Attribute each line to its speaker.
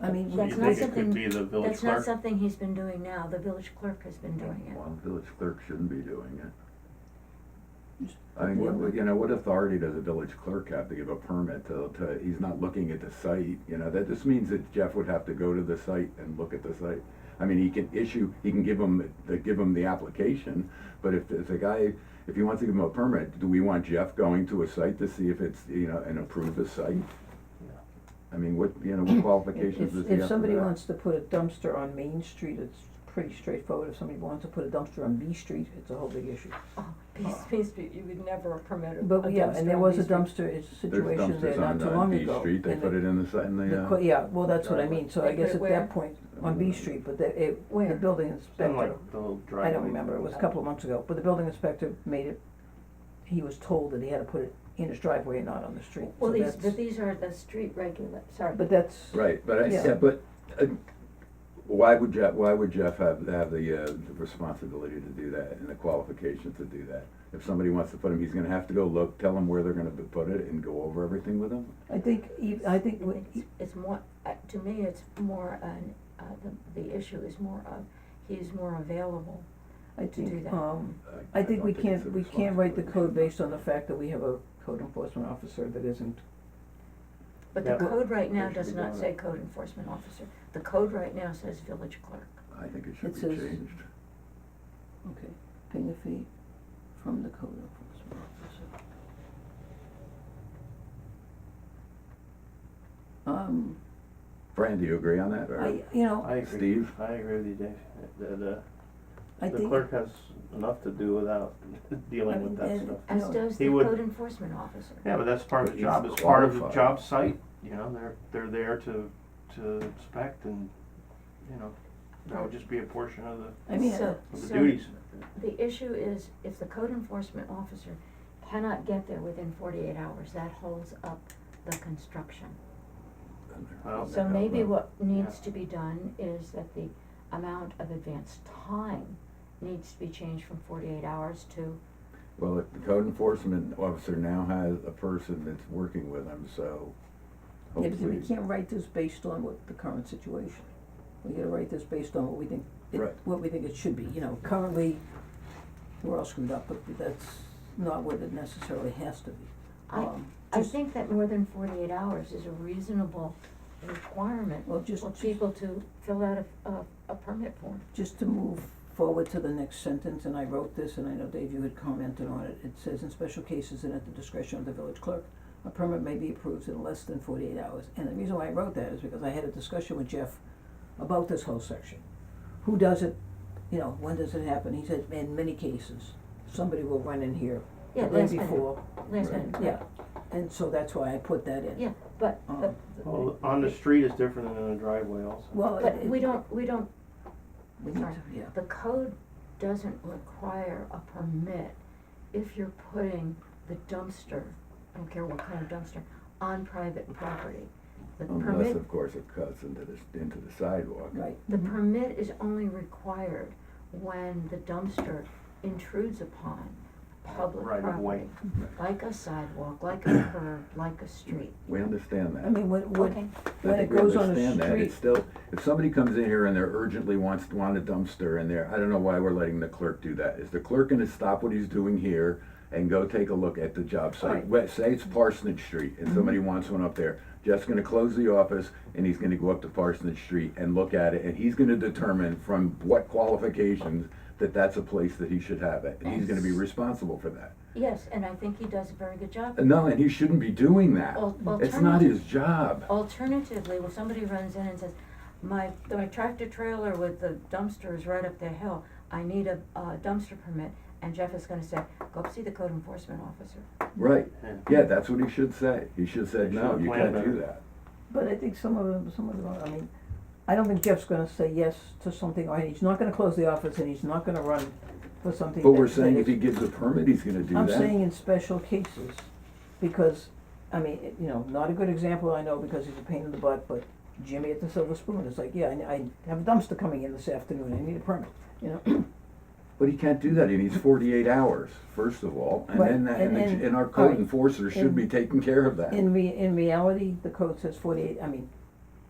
Speaker 1: I
Speaker 2: So
Speaker 1: mean, we-
Speaker 2: you
Speaker 3: That's not
Speaker 2: think it could
Speaker 3: something-
Speaker 2: be the village
Speaker 3: That's not
Speaker 2: clerk?
Speaker 3: something he's been doing now, the village clerk has been doing it.
Speaker 4: Well, the village clerk shouldn't be doing it. I
Speaker 1: Why
Speaker 4: mean,
Speaker 1: not?
Speaker 4: what- you know, what authority does a village clerk have to give a permit to, to, he's not looking at the site, you know, that just means that Jeff would have to go to the site and look at the site. I mean, he can issue, he can give him, the- give him the application, but if, if the guy, if he wants to give him a permit, do we want Jeff going to a site to see if it's, you know, and approve the site? I mean, what, you know, what
Speaker 1: if,
Speaker 4: qualifications does he have
Speaker 1: if
Speaker 4: for
Speaker 1: somebody
Speaker 4: that?
Speaker 1: wants to put a dumpster on Main Street, it's pretty straightforward. If somebody wants to put a dumpster on B Street, it's a whole big issue.
Speaker 3: Oh,
Speaker 5: Peace, peace, but you would never permit a dumpster.
Speaker 1: But, yeah, and there
Speaker 5: on
Speaker 1: was a
Speaker 5: these streets.
Speaker 1: dumpster, it's a
Speaker 4: There's
Speaker 1: situation there
Speaker 4: dumpsters on,
Speaker 1: not too
Speaker 4: uh,
Speaker 1: long
Speaker 4: B
Speaker 1: ago.
Speaker 4: Street, they
Speaker 1: and
Speaker 4: put it in the site, in
Speaker 1: the
Speaker 4: the, uh.
Speaker 1: qu- Yeah, well, that's what I mean, so I
Speaker 5: They put
Speaker 1: guess
Speaker 5: it
Speaker 1: at
Speaker 5: where?
Speaker 1: that point, on
Speaker 4: Mm.
Speaker 1: B Street, but the, it, the
Speaker 3: Where?
Speaker 1: building
Speaker 2: Something
Speaker 1: inspector,
Speaker 2: like the little
Speaker 1: I
Speaker 2: driveway.
Speaker 1: don't remember, it was a couple of months ago, but the building inspector made it, he was told that he had to put it in his driveway and not on the street, so
Speaker 3: Well, these,
Speaker 1: that's,
Speaker 3: but these are the street regula, sorry.
Speaker 1: but that's,
Speaker 4: Right, but I,
Speaker 1: Yeah.
Speaker 4: yeah, but, uh, why would Jeff, why would Jeff have, have the, uh, the responsibility to do that and the qualifications to do that? If somebody wants to put him, he's gonna have to go look, tell him where they're gonna put it and go over everything with him?
Speaker 1: I think, ev- I
Speaker 3: I
Speaker 1: think, w-
Speaker 3: think it's, it's more, uh, to me, it's more an, uh, the, the issue is more of, he's more available.
Speaker 1: I
Speaker 3: to do
Speaker 1: think,
Speaker 3: that.
Speaker 1: um, I think
Speaker 4: don't
Speaker 1: we
Speaker 4: it's
Speaker 1: can't,
Speaker 4: a
Speaker 1: we can't write the code
Speaker 4: responsibility.
Speaker 1: based on the fact that we have a code enforcement officer that isn't,
Speaker 3: But the
Speaker 2: Yeah.
Speaker 3: code right now
Speaker 2: They should
Speaker 3: does
Speaker 2: be
Speaker 3: not
Speaker 2: doing
Speaker 3: say
Speaker 2: it.
Speaker 3: code enforcement officer, the code right now says village clerk.
Speaker 4: I think it
Speaker 1: It
Speaker 4: should be
Speaker 1: says-
Speaker 4: changed.
Speaker 1: okay, paying a fee from the code enforcement officer. Um,
Speaker 4: Fran, do you agree on that, or
Speaker 1: I, you know,
Speaker 2: I agree.
Speaker 4: Steve?
Speaker 2: I agree with you, Dave, that, uh,
Speaker 1: I
Speaker 2: the
Speaker 1: think,
Speaker 2: clerk has enough to do without
Speaker 1: I
Speaker 2: dealing
Speaker 1: mean,
Speaker 2: with that
Speaker 1: and-
Speaker 2: stuff.
Speaker 3: As
Speaker 1: No.
Speaker 3: does
Speaker 2: He
Speaker 3: the
Speaker 2: would-
Speaker 3: code enforcement officer.
Speaker 2: Yeah, but that's part of
Speaker 4: But
Speaker 2: the
Speaker 4: he's
Speaker 2: job, it's part of the
Speaker 4: qualified.
Speaker 2: job site, you know, they're, they're there to, to inspect and, you know, that would just be a portion of the,
Speaker 1: I mean,
Speaker 3: So-
Speaker 2: of the
Speaker 3: so-
Speaker 2: duties.
Speaker 3: The issue is if the code enforcement officer cannot get there within forty-eight hours, that holds up the construction.
Speaker 2: Well,
Speaker 3: So maybe what needs
Speaker 2: Yeah.
Speaker 3: to be done is that the amount of advance time needs to be changed from forty-eight hours to,
Speaker 4: Well, if the code enforcement officer now has a person that's working with him, so
Speaker 1: yeah, but we
Speaker 4: hopefully,
Speaker 1: can't write this based on what the current situation. We gotta write this based on what we think, it-
Speaker 4: Right.
Speaker 1: what we think it should be, you know, currently, we're all screwed up, but that's not what it necessarily has to be.
Speaker 3: I,
Speaker 1: Um,
Speaker 3: I
Speaker 1: just-
Speaker 3: think that more than forty-eight hours is a reasonable requirement
Speaker 1: Well, just,
Speaker 3: for
Speaker 1: just-
Speaker 3: people to fill out a, a, a permit form.
Speaker 1: just to move forward to the next sentence, and I wrote this, and I know Dave, you had commented on it, it says, in special cases and at the discretion of the village clerk, a permit may be approved in less than forty-eight hours, and the reason why I wrote that is because I had a discussion with Jeff about this whole section. Who does it, you know, when does it happen, he said, in many cases, somebody will run in here the
Speaker 3: Yeah,
Speaker 1: day
Speaker 3: last minute,
Speaker 1: before,
Speaker 3: last
Speaker 4: Right.
Speaker 3: minute.
Speaker 1: yeah, and so that's why I put that in.
Speaker 3: Yeah, but, but,
Speaker 1: Um,
Speaker 2: Well, on the street is different than in the driveway also.
Speaker 1: Well,
Speaker 3: but
Speaker 1: it,
Speaker 3: we don't, we don't
Speaker 1: we need to,
Speaker 3: sorry.
Speaker 1: yeah,
Speaker 3: The code doesn't require a permit if you're putting the dumpster, I don't care what kind of dumpster, on private property. The
Speaker 4: unless,
Speaker 3: permit,
Speaker 4: of course, it cuts into the, into the sidewalk.
Speaker 1: right.
Speaker 3: the
Speaker 1: Mhm.
Speaker 3: permit is only required when the dumpster intrudes upon public
Speaker 2: Right of way. Mm-hmm.
Speaker 3: property. Like a sidewalk, like a curb, like a street.
Speaker 4: We understand that.
Speaker 1: I mean, when, when,
Speaker 3: Okay,
Speaker 4: I
Speaker 1: when it
Speaker 4: think we
Speaker 1: goes on a street.
Speaker 4: understand that. It's still, if somebody comes in here and they're urgently wants, want a dumpster in there, I don't know why we're letting the clerk do that. Is the clerk gonna stop what he's doing here and go take a look at the job site?
Speaker 1: Right. Mm-hmm.
Speaker 4: Wait, Say it's Parsonage Street and somebody wants one up there. Jeff's gonna close the office and he's gonna go up to Parsonage Street and look at it and he's gonna determine from what qualifications that that's a place that he should have it. And he's gonna be responsible for that.
Speaker 3: yes, and I think he does a very good job.
Speaker 4: No, and he shouldn't be doing that.
Speaker 3: Al-
Speaker 4: It's not
Speaker 3: alternative-
Speaker 4: his job.
Speaker 3: Alternatively, when somebody runs in and says, my, my tractor trailer with the dumpster is right up the hill, I need a, a dumpster permit, and Jeff is gonna say, go up see the code enforcement officer.
Speaker 4: Right,
Speaker 2: Yeah.
Speaker 4: yeah, that's what he should say, he should say,
Speaker 2: They
Speaker 4: no,
Speaker 2: should
Speaker 4: you
Speaker 2: plan
Speaker 4: can't do
Speaker 2: better."
Speaker 4: that.
Speaker 1: But I think some of them, some of them, I mean, I don't think Jeff's gonna say yes to something, or he's not gonna close the office and he's not gonna run for something
Speaker 4: But we're
Speaker 1: that- that
Speaker 4: saying if
Speaker 1: is-
Speaker 4: he gives a permit, he's gonna do
Speaker 1: I'm saying
Speaker 4: that.
Speaker 1: in special cases, because, I mean, it- you know, not a good example, I know, because he's a pain in the butt, but Jimmy at the Silver Spoon is like, yeah, I, I have a dumpster coming in this afternoon, I need a permit, you know?
Speaker 4: But he can't do that, he needs forty-eight hours, first of all, and
Speaker 1: Right,
Speaker 4: then, that-
Speaker 1: and-
Speaker 4: and,
Speaker 1: and-
Speaker 4: the- and our
Speaker 1: all
Speaker 4: code
Speaker 1: right,
Speaker 4: enforcer should
Speaker 1: and-
Speaker 4: be taking care of that.
Speaker 1: In re- in reality, the code says forty-eight, I mean,